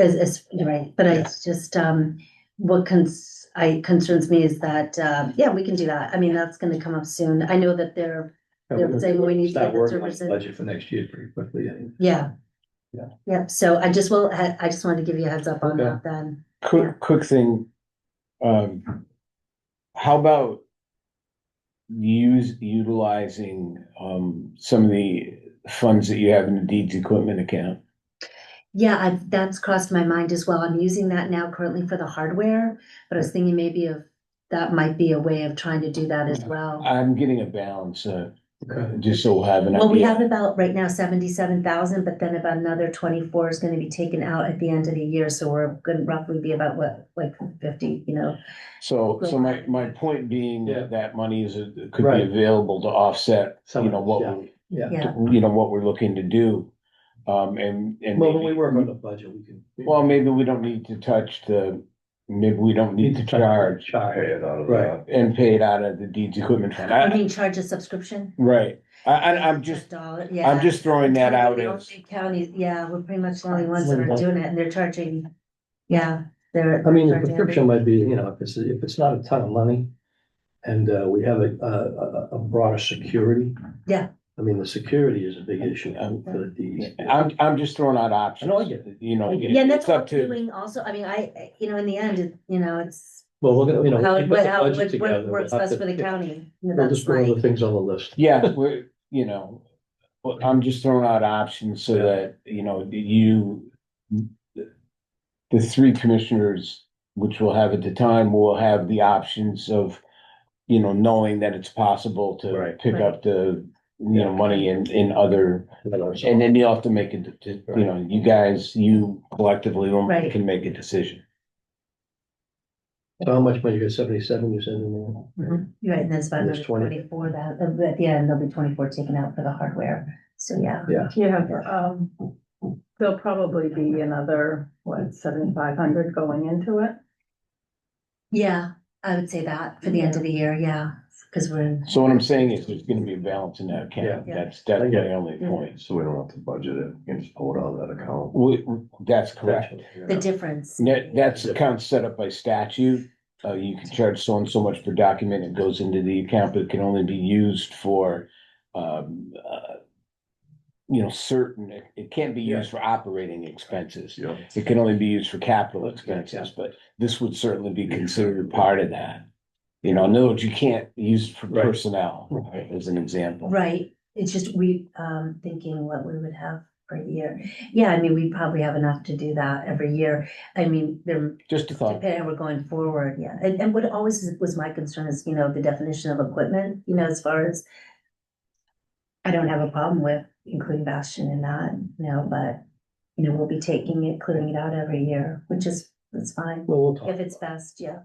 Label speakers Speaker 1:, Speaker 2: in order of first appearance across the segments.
Speaker 1: As, as, you're right, but I
Speaker 2: Yes.
Speaker 1: just, um, what cons, I, concerns me is that, uh, yeah, we can do that. I mean, that's gonna come up soon. I know that they're, they're saying we need to
Speaker 2: Start
Speaker 1: get the
Speaker 2: working on
Speaker 1: servers
Speaker 2: the
Speaker 1: in.
Speaker 2: budget for next year pretty quickly. and-
Speaker 1: Yeah.
Speaker 2: Yeah.
Speaker 1: Yep, so I just will, I, I just wanted to give you a heads up on
Speaker 2: Okay.
Speaker 1: that then. Yeah.
Speaker 3: Quick, quick thing. Um, how about use, utilizing, um, some of the funds that you have in the deeds equipment account?
Speaker 1: Yeah, I've, that's crossed my mind as well. I'm using that now currently for the hardware, but I was thinking maybe of, that might be a way of trying to do that as well.
Speaker 3: I'm getting a balance, uh,
Speaker 2: Okay.
Speaker 3: just so we'll have an
Speaker 1: Well, we
Speaker 3: idea.
Speaker 1: have about right now seventy-seven thousand, but then about another twenty-four is gonna be taken out at the end of the year, so we're gonna roughly be about what, like fifty, you know?
Speaker 3: So, so my, my point being
Speaker 2: Yeah.
Speaker 3: that that money is, uh, could be
Speaker 2: Right.
Speaker 3: available to offset,
Speaker 2: Some of
Speaker 3: you know,
Speaker 2: it,
Speaker 3: what,
Speaker 2: yeah.
Speaker 3: we-
Speaker 2: Yeah,
Speaker 1: Yeah,
Speaker 3: you know, what we're looking to do. Um, and, and.
Speaker 2: well, when
Speaker 3: maybe-
Speaker 2: we work on the budget, we can.
Speaker 3: Well, maybe we don't need to touch the, maybe we don't need to charge.
Speaker 2: Charge. Right.
Speaker 4: Right.
Speaker 3: And pay it out of the deeds equipment fund.
Speaker 1: I
Speaker 3: I-
Speaker 1: mean, charge a subscription.
Speaker 3: Right, I, I, I'm just,
Speaker 1: Dollar, yeah.
Speaker 3: I'm just throwing that out
Speaker 1: The
Speaker 3: as,
Speaker 1: only Counties, yeah, we're pretty much the only ones that are
Speaker 2: Right.
Speaker 1: doing it, and they're charging, yeah, they're.
Speaker 2: I mean, the
Speaker 1: they're charging
Speaker 2: prescription might be, you know, if it's, if it's not a ton of money and uh, we have a, a, a- a broader security.
Speaker 1: Yeah.
Speaker 2: I mean, the security is a big issue
Speaker 3: Um,
Speaker 2: for the E D's.
Speaker 3: I'm, I'm just throwing out options.
Speaker 2: I know, I get it.
Speaker 3: You know,
Speaker 2: I get it.
Speaker 1: everything. Yeah, and that's
Speaker 3: it's
Speaker 1: what
Speaker 3: up
Speaker 1: we're
Speaker 3: to,
Speaker 1: doing also, I mean, I, I- you know, in the end, it- you know, it's
Speaker 2: Well, we're gonna, you know.
Speaker 1: how,
Speaker 2: we
Speaker 1: it-
Speaker 2: put the
Speaker 1: how,
Speaker 2: budget
Speaker 1: what
Speaker 2: together,
Speaker 1: what
Speaker 2: we'll
Speaker 1: works
Speaker 2: have
Speaker 1: best
Speaker 2: to-
Speaker 1: for the county. You know,
Speaker 2: We'll
Speaker 1: that's
Speaker 2: just put
Speaker 1: my-
Speaker 2: other things on the list.
Speaker 3: yeah, we're, you know, well, I'm just throwing out options so
Speaker 2: Yeah.
Speaker 3: that, you know, that you, the three commissioners, which we'll have at the time, will have the options of, you know, knowing that it's possible to
Speaker 2: Right.
Speaker 3: pick up the, you know, money in, in other And then you have to make it, to- to- you know, you guys, you collectively will-
Speaker 1: Right.
Speaker 3: can make a decision.
Speaker 2: So How much money, you got seventy-seven you said in there?
Speaker 1: Mhm. You're right, and there's about
Speaker 2: There's
Speaker 1: another
Speaker 2: 20.
Speaker 1: twenty-four that, uh, at the end, there'll be twenty-four taken out for the hardware, so yeah.
Speaker 5: Yeah, um, there'll probably be another, what, seventy-five hundred going into it?
Speaker 1: Yeah, I would say that for the end of the year, yeah, because we're in,
Speaker 3: So what I'm saying is there's gonna be a balance in that account.
Speaker 1: Yeah.
Speaker 3: That's, that's my only point.
Speaker 4: So we don't have to budget it, we can just pull it out of that account.
Speaker 3: We, that's correct.
Speaker 1: the difference,
Speaker 3: That, that's account set up by statute. Uh, you can charge so and so much per document. It goes into the account, but it can only be used for, um, uh, you know, certain, it- it can't be used for operating expenses.
Speaker 4: Yeah.
Speaker 3: It can only be used for capital expenses, but this would certainly be considered part of that. You know, in other words, you can't use for
Speaker 2: Right.
Speaker 3: personnel, as an example.
Speaker 1: right? It's just we, um, thinking what we would have per year. Yeah, I mean, we probably have enough to do that every year. I mean, there,
Speaker 3: Just a thought.
Speaker 1: depending how we're going forward, yeah. And, and what always was my concern is, you know, the definition of equipment, you know, as far as I don't have a problem with including Bastion in that, you know, but, you know, we'll be taking it, clearing it out every year, which is, it's fine.
Speaker 2: Well, we'll talk,
Speaker 1: If it's best, yeah,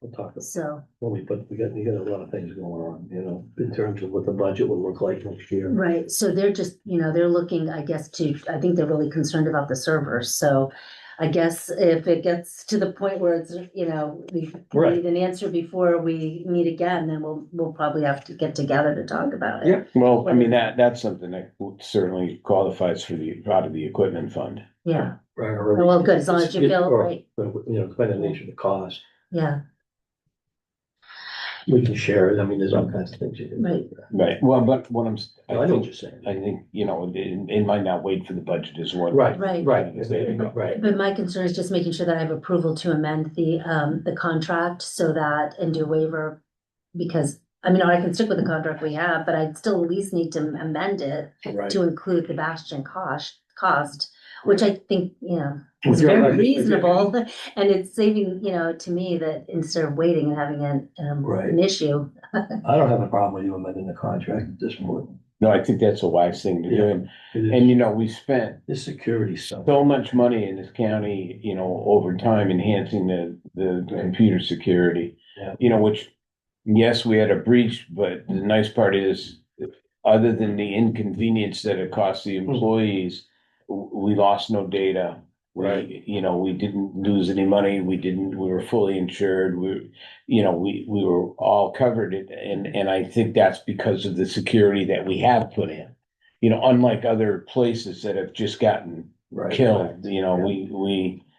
Speaker 2: we'll talk,
Speaker 1: so,
Speaker 2: when we put, we got, we got a lot of things going on, you know, in terms of what the budget will look like next year.
Speaker 1: right, so they're just, you know, they're looking, I guess, to, I think they're really concerned about the servers, so I guess if it gets to the point where it's, you know, we
Speaker 2: Right.
Speaker 1: need an answer before we meet again, then we'll, we'll probably have to get together to talk about it.
Speaker 2: Yeah.
Speaker 3: Well, I mean, that, that's something that certainly qualifies for the, out of the equipment fund.
Speaker 1: Yeah,
Speaker 2: Right. or-
Speaker 1: well, good, as long as you
Speaker 2: It-
Speaker 1: feel
Speaker 2: or,
Speaker 1: right,
Speaker 2: You know, kind of nature of the cost,
Speaker 1: yeah,
Speaker 2: we can share it, I mean, there's all kinds of things you can. do.
Speaker 1: Right.
Speaker 3: Right. Well, but what I'm, s-
Speaker 2: No, I
Speaker 3: I
Speaker 2: know what
Speaker 3: think,
Speaker 2: you're saying.
Speaker 3: I think, you know, it, it might not wait for the budget as well.
Speaker 2: Right,
Speaker 1: Right.
Speaker 2: right, right.
Speaker 1: but my concern is just making sure that I have approval to amend the, um, the contract so that, and do waiver. Because, I mean, I can stick with the contract we have, but I'd still at least need to amend it
Speaker 2: Right.
Speaker 1: to include the Bastion cost, cost, which I think, you know,
Speaker 2: If
Speaker 1: is
Speaker 2: you're
Speaker 1: very
Speaker 2: elected- if you're-
Speaker 1: reasonable. And it's saving, you know, to me that instead of waiting and having an, um,
Speaker 2: Right.
Speaker 1: an issue,
Speaker 2: I don't have a problem with you amending the contract at this point.
Speaker 3: No, I think that's a wise thing to do.
Speaker 2: Yeah.
Speaker 3: And,
Speaker 2: It is-
Speaker 3: and you know, we spent
Speaker 2: This security stuff.
Speaker 3: so much money in this county, you know, over time enhancing the, the computer security.
Speaker 2: Yeah.
Speaker 3: You know, which, yes, we had a breach, but the nice part is, other than the inconvenience that it cost the
Speaker 2: Hmm.
Speaker 3: employees, w- we lost no data. We,
Speaker 2: Right.
Speaker 3: you know, we didn't lose any money. We didn't, we were fully insured. We, you know, we, we were all covered. And- And, and I think that's because of the security that we have put in. You know, unlike other places that have just gotten
Speaker 2: Right.
Speaker 3: killed, you know, we, we.